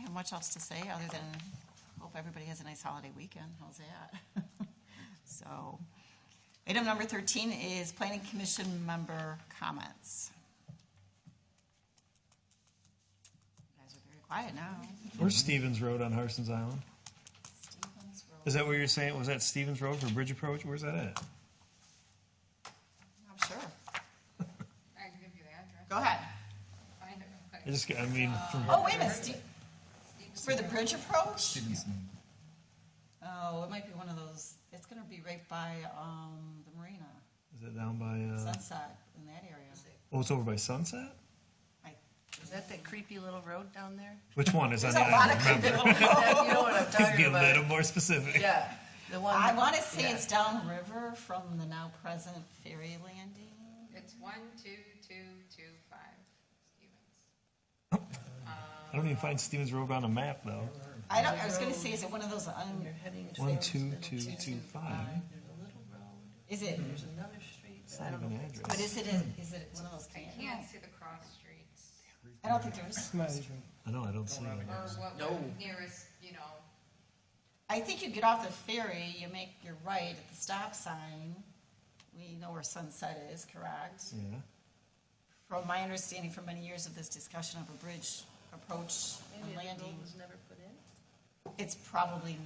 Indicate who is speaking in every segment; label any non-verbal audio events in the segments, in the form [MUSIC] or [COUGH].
Speaker 1: have much else to say other than hope everybody has a nice holiday weekend. How's that? [LAUGHS] So, item number thirteen is planning commission member comments. You guys are very quiet now.
Speaker 2: Where's Stevens Road on Harson's Island?
Speaker 1: Stevens Road.
Speaker 2: Is that what you're saying? Was that Stevens Road for Bridge Approach? Where's that at?
Speaker 1: I'm sure.
Speaker 3: I can give you the address.
Speaker 1: Go ahead.
Speaker 3: Find it real quick.
Speaker 2: I just, I mean, from
Speaker 1: Oh, wait a minute, Ste- for the bridge approach?
Speaker 4: Stevenson.
Speaker 1: Oh, it might be one of those, it's gonna be right by, um, the marina,
Speaker 2: is it down by? Uh,
Speaker 1: Sunset, in that area.
Speaker 2: oh, it's over by Sunset.
Speaker 1: I-
Speaker 5: Is that that creepy little road down there?
Speaker 2: Which one is on
Speaker 1: There's a
Speaker 2: the
Speaker 1: lot
Speaker 2: island?
Speaker 1: of creepy
Speaker 2: Remember,
Speaker 1: little
Speaker 5: [LAUGHS] That- You know what
Speaker 2: [LAUGHS]
Speaker 5: I'm
Speaker 2: be
Speaker 5: talking
Speaker 2: a little
Speaker 5: about?
Speaker 2: more specific.
Speaker 5: Yeah, the one.
Speaker 1: I wanna say
Speaker 5: yeah.
Speaker 1: it's downriver from the now present ferry landing.
Speaker 3: It's one, two, two, two, five, Stevens.
Speaker 2: I don't even find Stevens Road on a map though.
Speaker 1: I don't, I was gonna say, is it one of those, un-
Speaker 5: You're heading towards
Speaker 2: One two two
Speaker 5: Middletown.
Speaker 2: two five.
Speaker 5: There's a little road,
Speaker 1: is it,
Speaker 5: there's another street.
Speaker 2: It's
Speaker 5: I
Speaker 2: not
Speaker 5: don't
Speaker 2: even
Speaker 5: know.
Speaker 2: an
Speaker 1: but
Speaker 2: address.
Speaker 1: is it, a- is it one of those
Speaker 3: I
Speaker 1: canyons?
Speaker 3: can't see the cross streets
Speaker 1: I don't think there's,
Speaker 6: Not even.
Speaker 2: I know. I don't see it.
Speaker 3: or what
Speaker 5: No.
Speaker 3: would nearest, you know,
Speaker 1: I think you get off the ferry, you make your right at the stop sign. We know where Sunset is, correct?
Speaker 2: Yeah.
Speaker 1: From my understanding from many years of this discussion of a bridge approach
Speaker 5: Maybe
Speaker 1: and
Speaker 5: the road
Speaker 1: landing,
Speaker 5: was never put in?
Speaker 1: it's probably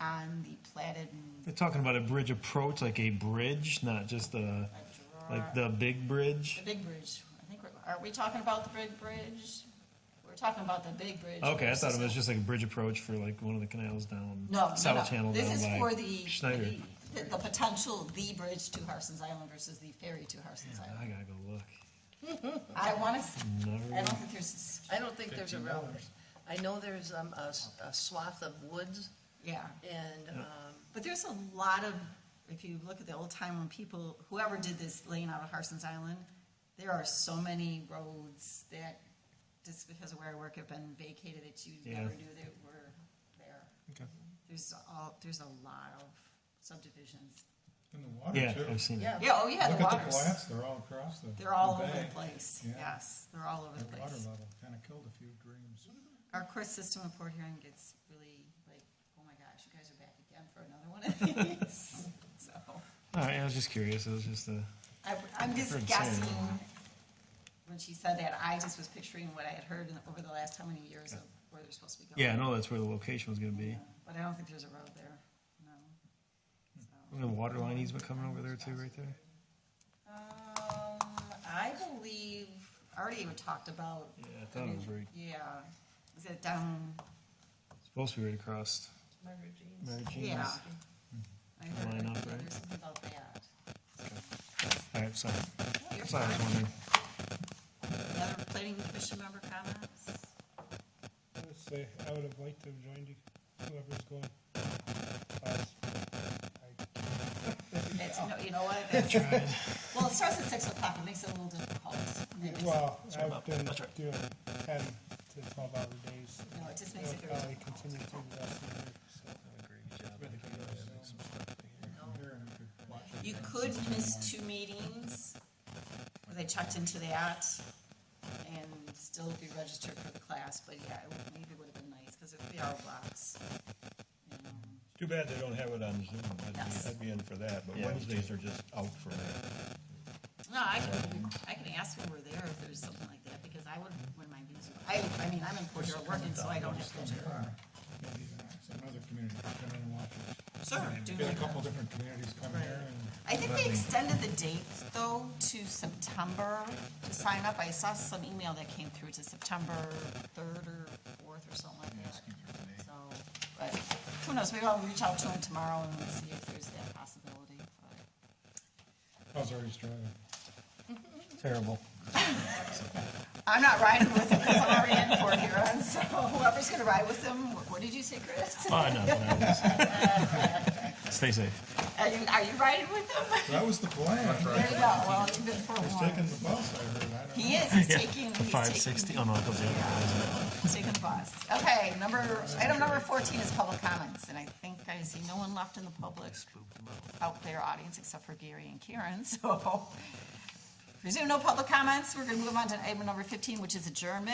Speaker 1: on the platted and
Speaker 2: They're talking about a bridge approach, like a bridge, not just a
Speaker 1: like
Speaker 2: like
Speaker 1: Girard-
Speaker 2: the big bridge.
Speaker 1: The big bridge. I think, we're- are we talking about the big bridge? We're talking about the big bridge.
Speaker 2: Okay, I thought it was
Speaker 1: versus-
Speaker 2: just like a bridge approach for like one of the canals down
Speaker 1: No, no,
Speaker 2: South
Speaker 1: no.
Speaker 2: Channel.
Speaker 1: This
Speaker 2: down
Speaker 1: is
Speaker 2: by
Speaker 1: for the,
Speaker 2: Schneider.
Speaker 1: the, the potential, the bridge to Harson's Island versus the ferry to Harson's
Speaker 2: I
Speaker 1: Island.
Speaker 2: gotta go look.
Speaker 1: I want to, I
Speaker 2: Never.
Speaker 1: don't think there's,
Speaker 5: I don't think there's a road. I know there's um, a s- a swath of woods
Speaker 1: yeah.
Speaker 5: and, um,
Speaker 1: But there's a lot of, if you look at the old time when people, whoever did this laying out of Harson's Island, there are so many roads that, just because of where I work, have been vacated that you
Speaker 2: Yeah.
Speaker 1: never knew that were there.
Speaker 6: Okay.
Speaker 1: There's all, there's a lot of subdivisions.
Speaker 6: In the water
Speaker 2: Yeah,
Speaker 6: too.
Speaker 2: I've seen it.
Speaker 5: yeah.
Speaker 1: Yeah, oh yeah, the
Speaker 6: Look at the
Speaker 1: waters.
Speaker 6: plants; they're all across the.
Speaker 1: They're all over
Speaker 6: bank.
Speaker 1: the place,
Speaker 6: Yeah.
Speaker 1: yes, they're all over
Speaker 6: The
Speaker 1: the
Speaker 6: water
Speaker 1: place.
Speaker 6: level kind of killed a few dreams.
Speaker 1: Our court system in Port Huron gets really like, oh my gosh, you guys are back again for another one of these, [LAUGHS] so.
Speaker 2: All right, I was just curious. It was just uh, a.
Speaker 1: I, I'm just
Speaker 2: Heard
Speaker 1: guessing,
Speaker 2: saying.
Speaker 1: when she said that, I just was picturing what I had heard in- over the last how many years of where they're supposed to be going.
Speaker 2: Yeah, I know that's where the location was gonna be.
Speaker 1: Yeah, But I don't think there's a road there, no. So,
Speaker 2: And the water line easement coming over there too, right there.
Speaker 1: Um, I believe, already we talked about.
Speaker 2: Yeah, I thought it was right.
Speaker 1: Yeah, is it um, down,
Speaker 2: Supposed to be right across.
Speaker 5: Margaret Jean's.
Speaker 2: Mary Jean's.
Speaker 1: yeah. I heard
Speaker 2: Line up,
Speaker 1: that-
Speaker 2: right?
Speaker 1: there's something about that.
Speaker 2: All right, sorry.
Speaker 1: You're
Speaker 2: Sorry, I was
Speaker 1: fine.
Speaker 2: wondering.
Speaker 1: Other planning commission member comments?
Speaker 7: I would say, I would have liked to have joined you, whoever's going. Uh, Us. I-
Speaker 1: It's, you know, you know what, that's, well, it starts at six o'clock, it makes it a little difficult. It makes it-
Speaker 7: Well, I've
Speaker 2: up.
Speaker 7: been
Speaker 2: That's right.
Speaker 7: doing ten to twelve hour days.
Speaker 1: No, it just makes it
Speaker 7: I'll
Speaker 1: very
Speaker 7: probably
Speaker 1: difficult.
Speaker 7: continue to the rest of the year, so.
Speaker 6: Here, and you could watch it.
Speaker 1: You could miss two meetings, where they checked into that, and still be registered for the class, but yeah, it would- maybe would have been nice, because it'd be our blocks. uh, you know.
Speaker 8: Too bad they don't have it on Zoom. I'd be,
Speaker 1: Yes.
Speaker 8: I'd be in for that, but
Speaker 2: Yeah, me
Speaker 8: Wednesdays are just out for me.
Speaker 1: No, I can, I can ask when we're there if there's something like that, because I would, wouldn't mind being, Zoom. I, I mean, I'm in Port Huron working, so I don't have to.
Speaker 6: Maybe Some other community could come in and watch it.
Speaker 1: Sure. do
Speaker 6: Get a
Speaker 1: that.
Speaker 6: couple different communities come here and.
Speaker 1: I think they extended the date, though, to September to sign up. I saw some email that came through to September third or fourth or something like that. So, but who knows, maybe I'll reach out to them tomorrow and see if there's that possibility. but-
Speaker 6: How's Ernie's driving?
Speaker 2: [LAUGHS]
Speaker 6: [LAUGHS]
Speaker 2: Terrible.
Speaker 1: I'm not riding with them because I'm already in Port Huron, so whoever's gonna ride with them, wh- what did you say, Chris?
Speaker 2: Oh,
Speaker 1: [LAUGHS]
Speaker 2: no, no. Stay safe.
Speaker 1: Are you, are you riding with them?
Speaker 6: That was the plan.
Speaker 1: There you go, well, you've been
Speaker 6: He's
Speaker 1: forewarned.
Speaker 6: taking the bus, I heard. I don't know.
Speaker 1: He is, he's
Speaker 2: Yeah,
Speaker 1: taking, he's
Speaker 2: The
Speaker 1: taking.
Speaker 2: [LAUGHS] five sixty. Oh no, it goes the other way. isn't it?
Speaker 1: Taking the bus. Okay, number, item number fourteen is public comments, and I think I see no one left in the public out there audience except for Gary and Karen, [LAUGHS] so. Presume no public comments. We're gonna move on to item number fifteen, which is adjournment.